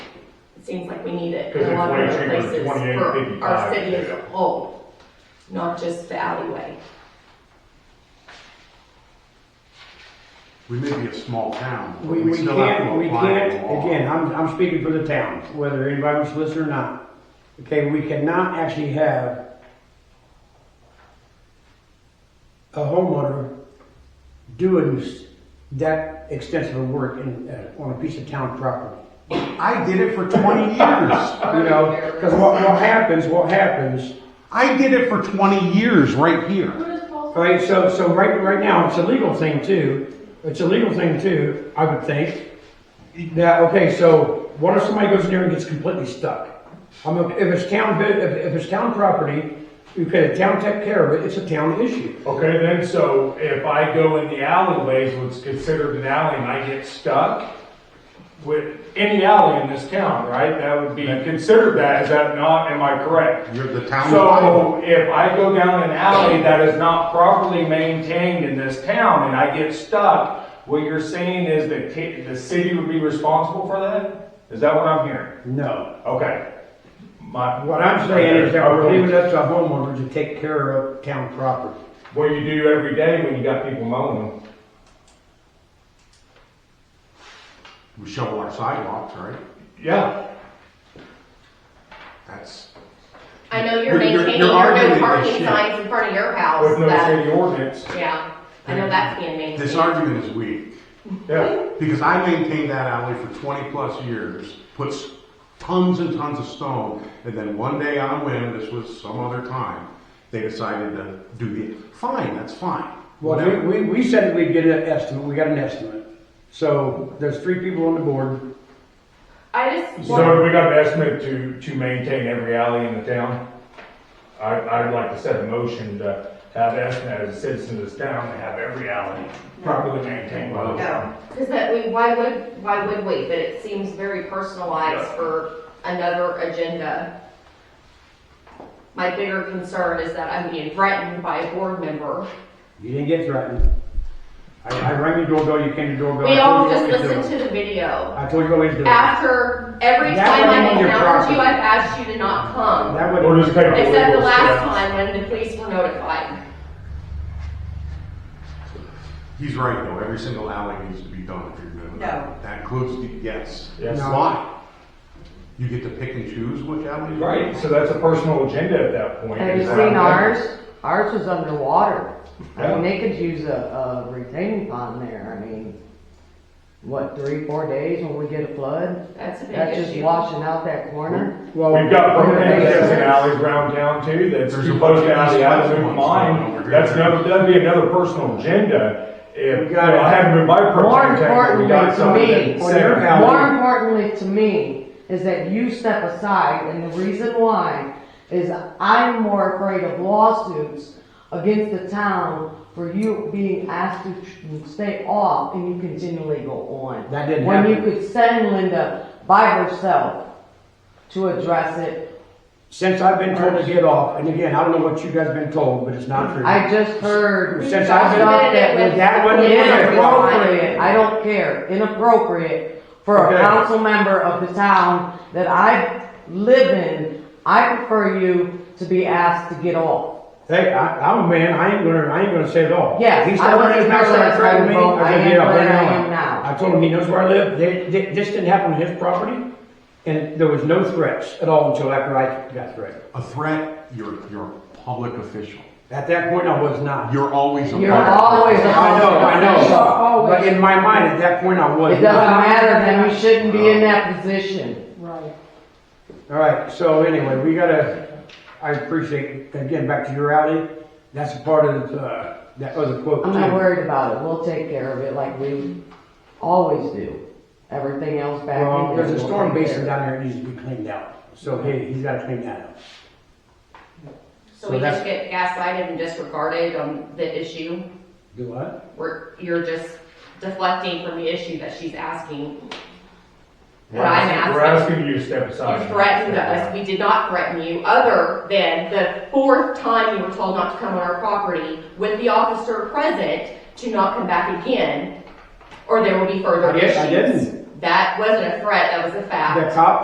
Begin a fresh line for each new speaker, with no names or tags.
it seems like we need it
Because
in a
it's
lot
way
of other
cheaper than
places
28,
for our
55.
city as a whole, not just the alleyway.
We may be a small town, but
We, we
we still have
can't,
to
we
apply
can't,
it law.
again, I'm, I'm speaking for the town, whether anybody wants to listen or not. Okay, we cannot actually have a homeowner doing s- that extensive of work in, uh, on a piece of town property.
I did it for twenty years.
You know, cause what, what happens, what happens,
I did it for twenty years right here.
alright, so, so right, right now, it's a legal thing too. It's a legal thing too, I would think. Now, okay, so what if somebody goes in there and gets completely stuck? I mean, if it's town, bid- if, if it's town property, okay, the town take care of it, it's a town issue.
Okay, then, so if I go in the alleyways, what's considered an alley, and I get stuck with any alley in this town, right? That would be considered that, is that not, am I correct?
You're the town.
So if I go down an alley that is not properly maintained in this town and I get stuck, what you're saying is that ca- the city would be responsible for that? Is that what I'm hearing?
No.
Okay. My-
What I'm saying is that we're leaving it up to a homeowner to take care of town property.
What you do every day when you got people mowing them.
We shovel our sidewalks, right?
Yeah.
That's,
I know you're
You're- you're-
maintaining
you're
your no
arguing this
parking
shit.
signs in front of your house,
With no
that,
city ordinance,
yeah, I know that's being maintained.
this argument is weak,
yeah.
because I maintained that alley for twenty-plus years, puts tons and tons of stone, and then one day on a whim, this was some other time, they decided to do the, fine, that's fine.
Well,
Whatever.
we, we, we said that we'd get an estimate, we got an estimate. So there's three people on the board.
I just
So
want,
we got an estimate to, to maintain every alley in the town. I, I'd like to set a motion to have an estimate as a citizen of this town to have every alley properly maintained by the town.
because that, we, why would, why would we, but it seems very personalized for another agenda. My bigger concern is that I'm being threatened by a board member.
You didn't get threatened. I, I rang your doorbell, you came to the doorbell.
We
I told
all
you what
just
to do.
listened to the video.
I told you always do. That
After, every
That
time
wasn't
I've
your
encountered
property.
you, I've asked you to not come,
would.
We're just kind of.
except the last time when the police were notified.
He's right though, every single alley needs to be done if you're doing it.
No.
That includes the, yes.
Yes.
No.
Why? You get to pick and choose which alley? you
Right,
want.
so that's a personal agenda at that point.
Have you
is what I'm
seen
thinking.
ours? Ours was underwater. I mean,
Yeah.
they could use a, a retaining pond there, I mean, what, three, four days when we get a flood?
That's a big
That's just
issue.
washing out that corner?
Well,
We've got permanent
Yes.
and alleys around town too, that's
There's
too
a
close
bunch
to
of
alley, I
east-west
don't
ones going over
mind,
here.
that's another, that'd be another personal agenda. If,
We
you
got
know,
it.
I haven't been my personal
More
agenda, we
importantly
got
to
something
me,
that
on your
said-
alley.
more importantly to me, is that you step aside, and the reason why is I'm more afraid of lawsuits against the town for you being asked to tr- stay off and you continually go on.
That didn't
When you
happen.
could send Linda by herself to address it
since I've been told to get off, and again, I don't know what you guys have been told, but it's not true.
I just heard.
Since I've been-
stuff that was
That wasn't what I thought.
Inappropriate, I don't care, inappropriate for
Okay.
a council member of the town that I live in. I prefer you to be asked to get off.
Hey, I, I'm a man, I ain't gonna, I ain't gonna say it all.
Yes,
He's
I
not
wasn't
running his mouth
there
like
last
threatening me,
time, but
I
I
said,
am
get up
where
right
I
now.
am now.
I told him he knows where I live, They- they- this didn't happen on his property, and there was no threats at all until after I got threatened.
A threat, you're, you're a public official.
At that point, I was not.
You're always a
You're
public
always
official.
a-
I know, I know,
Always.
but in my mind, at that point, I was.
It doesn't matter, then you shouldn't be in
Oh.
that position.
All right, so anyway, we gotta, I appreciate, again, back to your alley, that's a part of, uh, that other quote.
I'm not
too.
worried about it, we'll take care of it like we always do. Everything else back.
Well,
in
there's a
there, we'll
storm
take
basin
care
down there that needs to be cleaned out, so hey, he's gotta clean that up.
So we
So that's-
just get gaslighted and disregarded on the issue,
Do what?
where you're just deflecting from the issue that she's asking.
We're
What I'm
asking- We're
asking,
asking you to step aside.
you threatened us, we did not threaten you, other than the fourth time you were told not to come on our property with the officer present to not come back again, or there will be further
I did-
issues.
I didn't.
That wasn't a threat, that was a fact.
The cop